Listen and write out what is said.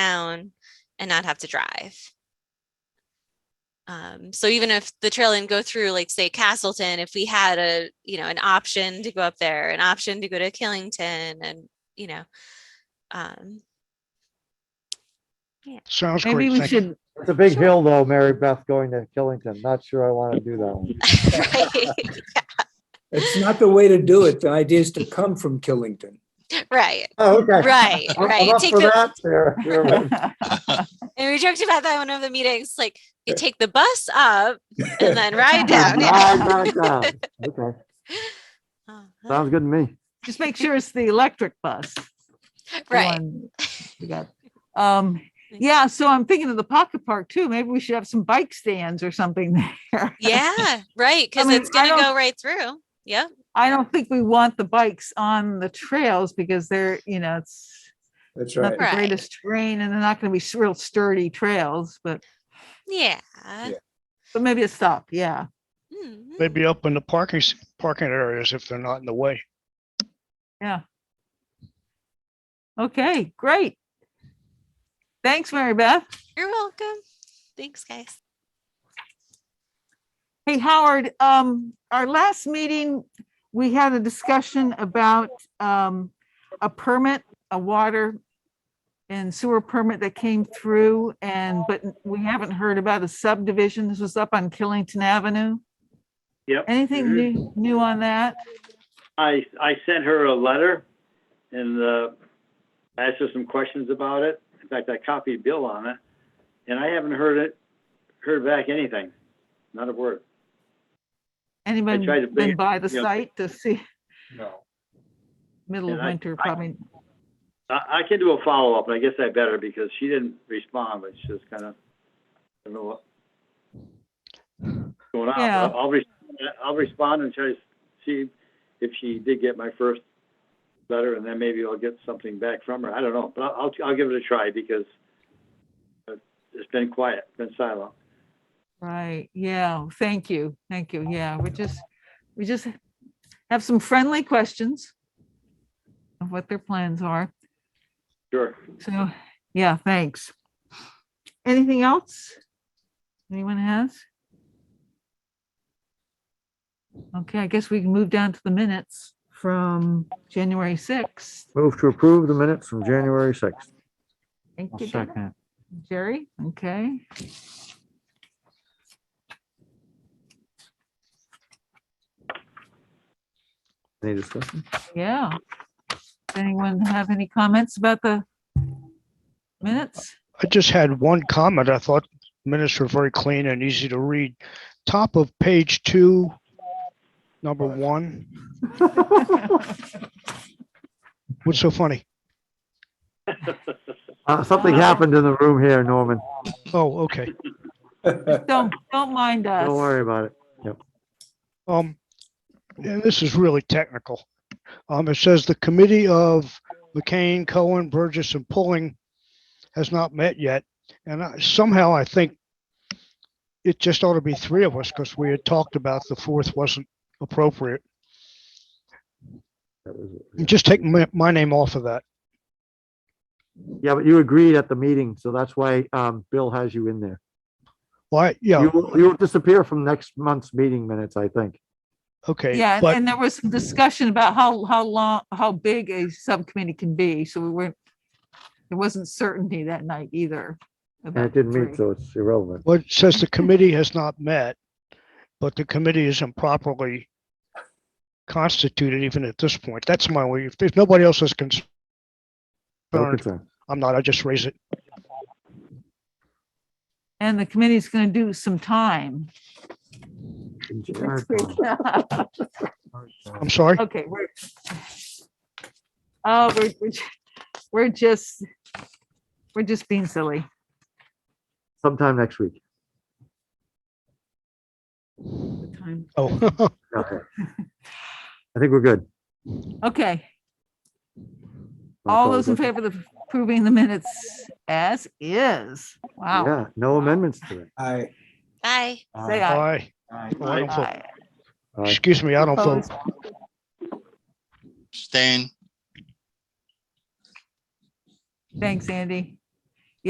town and not have to drive. Um, so even if the trail didn't go through, like say Castleton, if we had a, you know, an option to go up there, an option to go to Killington and, you know, um, Sounds Maybe great. we Thank you. should, It's a big hill though, Mary Beth going to Killington. Not sure I want to do that one. right, It's not the way to do it. The idea is to come from Killington. right, Oh, okay. right, I'm- I'm right. up Take for the- that, Sarah. You're right. And we joked about that in one of the meetings, like you take the bus up and then ride down. Ah, knock down. Okay, Uh-huh. sounds good to me. just make sure it's the electric bus. the Right. one we got. Um, yeah, so I'm thinking of the pocket park too. Maybe we should have some bike stands or something there. Yeah, right. Cause mean, it's I gonna go don't- right through. Yep. I don't think we want the bikes on the trails because they're, you know, it's That's not right. the Right. greatest terrain and they're not going to be s- real sturdy trails, but, Yeah. but maybe a stop, yeah. Mhm. Maybe up in the parking, s- parking areas if they're not in the way. Okay, great. Thanks, Mary Beth. You're welcome. Thanks, guys. Hey, Howard, um, our last meeting, we had a discussion about, um, a permit, a water and sewer permit that came through and, but we haven't heard about a subdivision. This was up on Killington Avenue. Yep. Anything Mhm. new, new on that? I, I sent her a letter and, uh, asked her some questions about it. In fact, I copied Bill on it and I haven't heard it, heard back anything, not a word. Anybody tried to bring been it- by the you know, site to see No. middle of and I- winter I- probably? I, I can do a follow-up and I guess I better because she didn't respond, but she just kind of, I don't know what going on. Yeah. But I'll, re- I'll respond and try to see if she did get my first letter and then maybe I'll get something back from her. I don't know, but I'll, I'll give it a try because uh, it's been quiet, been silent. Right, yeah, thank you, thank you, yeah, we just, we just have some friendly questions of what their plans are, Sure. so, yeah, thanks. Anything else? Anyone has? Okay, I guess we can move down to the minutes from January 6th. Move to approve the minutes from January 6th. Thank I'll you, second it. Jerry, okay. Any discussion? Yeah. Anyone have any comments about the minutes? I just had one comment. I thought minutes were very clean and easy to read. Top of page two, number one. What's so funny? Uh, something happened in the room here, Norman. Oh, okay. Don't, don't mind us. Don't worry about it. Um, and this is really technical. Um, it says the committee of McCain, Cohen, Burgess and Pulling has not met yet. And I- somehow I think it just ought to be three of us because we had talked about the fourth wasn't appropriate. That was it. Just take my, my name off of that. Yeah, but you agreed at the meeting, so that's why um, Bill has you in there. Why? Yeah, You will you will disappear from next month's meeting minutes, I think. okay. Yeah, But and there was some discussion about how, how long, how big a subcommittee can be, so we weren't, there wasn't certainty that night either. And about it didn't three. meet, so it's irrelevant. Well, it says the committee has not met, but the committee isn't properly constituted even at this point. That's my way. If there's nobody else is No concerned, concern. I'm not, I just raise it. And the committee's gonna do some time. next week. I'm sorry. Okay, we're, oh, we're, we're, ju- we're just, we're just being silly. Sometime next week. The time- Oh, Okay. I think we're good. Okay. I'll All call it those in good. favor of approving the minutes as is. Wow. Yeah, no amendments to it. I, Bye. Say aye. aye. Oh, I don't feel- Aye. All right. Excuse me, I don't vote. Opposed? Abstain. Thanks, Andy.